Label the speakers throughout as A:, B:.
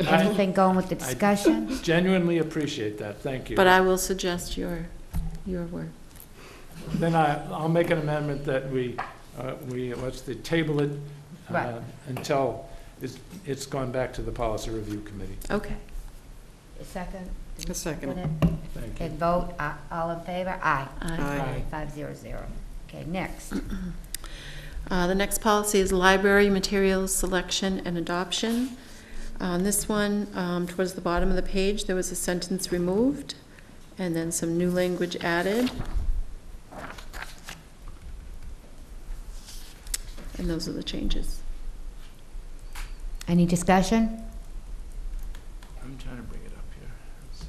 A: I
B: Anything going with the
A: I-
B: discussion?
A: genuinely appreciate that, thank you.
C: But I will suggest your, your work.
A: Then I, I'll make an amendment that we, uh, we, let's the table it uh,
B: Right.
A: until it's, it's gone back to the policy review committee.
C: Okay.
B: Second?
D: A second.
A: Thank you.
B: And vote, a- all in favor? Aye.
D: Uh,
C: Aye.
A: Aye.
B: Five zero zero. Okay, next.
C: Uh, The next policy is library materials selection and adoption. On this one, um, towards the bottom of the page, there was a sentence removed, and then some new language added. And those are the changes.
B: Any discussion?
A: I'm trying to bring it up here, let's see.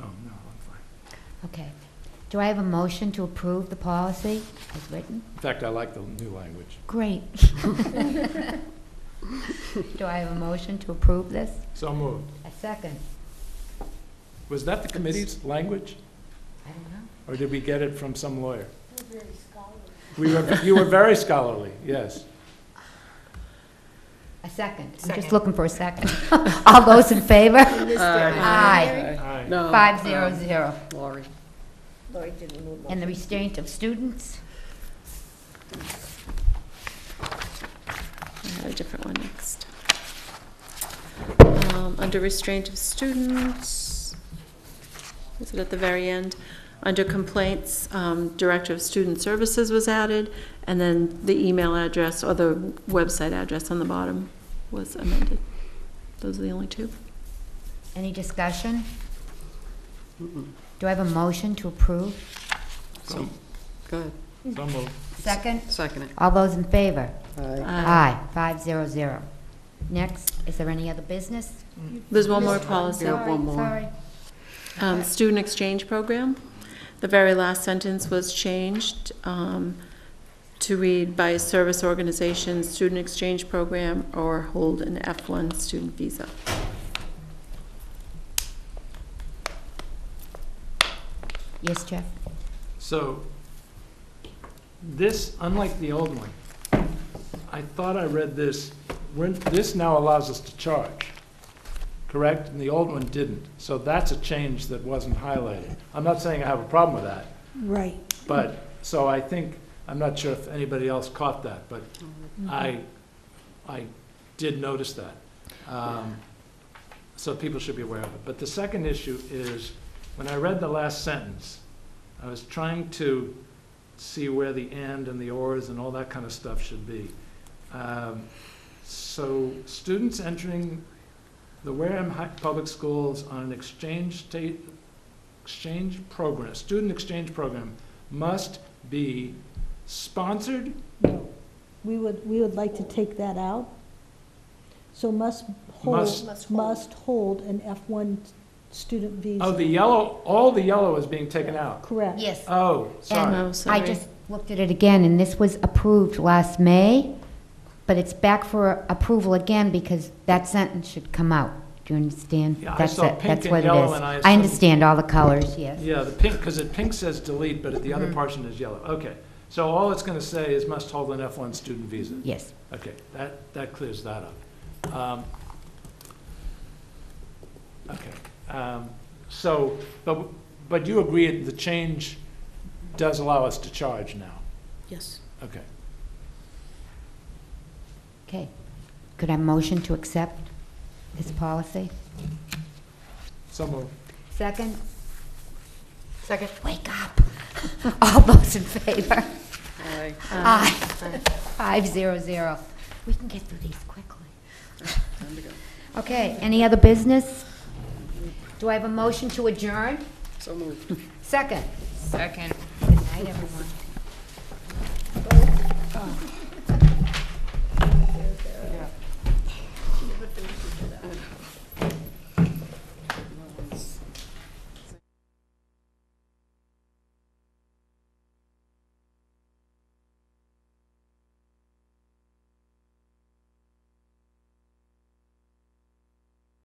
A: Oh, no, I'm fine.
B: Okay. Do I have a motion to approve the policy as written?
A: In fact, I like the new language.
B: Great. Do I have a motion to approve this?
A: So moved.
B: A second?
A: Was that the committee's language,
B: I don't know.
A: or did we get it from some lawyer? We were, you were very scholarly, yes.
B: A second? I'm just
D: Second.
B: looking for a second. All those in favor? Aye.
A: Aye.
D: No.
B: Five zero zero.
D: Lori.
B: And the restraint of students?
C: I had a different one next. Um, Under restraint of students, is it at the very end? Under complaints, um, Director of Student Services was added, and then the email address or the website address on the bottom was amended. Those are the only two.
B: Any discussion? Do I have a motion to approve?
A: So
D: Good.
A: so moved.
B: Second?
D: Second it.
B: All those in favor?
C: Aye.
B: Aye, five zero zero. Next, is there any other business?
C: There's one more policy.
D: Yeah, one more.
B: Sorry,
C: Um, Student exchange program. The very last sentence was changed um, to read by a service organization, student exchange program, or hold an F1 student visa.
B: sorry. Yes, Jeff?
A: So, this, unlike the old one, I thought I read this, we're- this now allows us to charge, correct? And the old one didn't. So that's a change that wasn't highlighted. I'm not saying I have a problem with that,
E: Right.
A: but, so I think, I'm not sure if anybody else caught that, but I, I did notice that. Um, So people should be aware of it. But the second issue is, when I read the last sentence, I was trying to see where the and and the ors and all that kind of stuff should be. Um, So students entering the Wareham Hi- Public Schools on an exchange state, exchange program, student exchange program, must be sponsored
E: No, we would, we would like to take that out. So must
A: Must-
E: hold, must hold an F1 student visa.
A: Oh, the yellow, all the yellow is being taken out.
E: Correct.
B: Yes.
A: Oh, sorry.
C: Oh,
B: I
C: sorry.
B: just looked at it again, and this was approved last May, but it's back for approval again because that sentence should come out. Do you understand?
A: Yeah, I
B: That's
A: saw
B: it.
A: pink
B: That's
A: and
B: what it
A: yellow,
B: is.
A: and I
B: I
A: assumed-
B: understand all the colors, yes.
A: Yeah, the pink, because it pink says delete, but the other
B: Mhm.
A: portion is yellow. Okay. So all it's going to say is must hold an F1 student visa.
B: Yes.
A: Okay, that, that clears that up. Um, Okay, um, so, but, but you agree the change does allow us to charge now?
C: Yes.
A: Okay.
B: Okay. Could I motion to accept this policy?
A: So moved.
B: Second? Second. Wake up. All those in favor?
D: Aye.
B: Aye. Five zero zero. We can get through these quickly.
D: Time to go.
B: Okay, any other business? Do I have a motion to adjourn?
D: So moved.
B: Second? Second. Good night, everyone.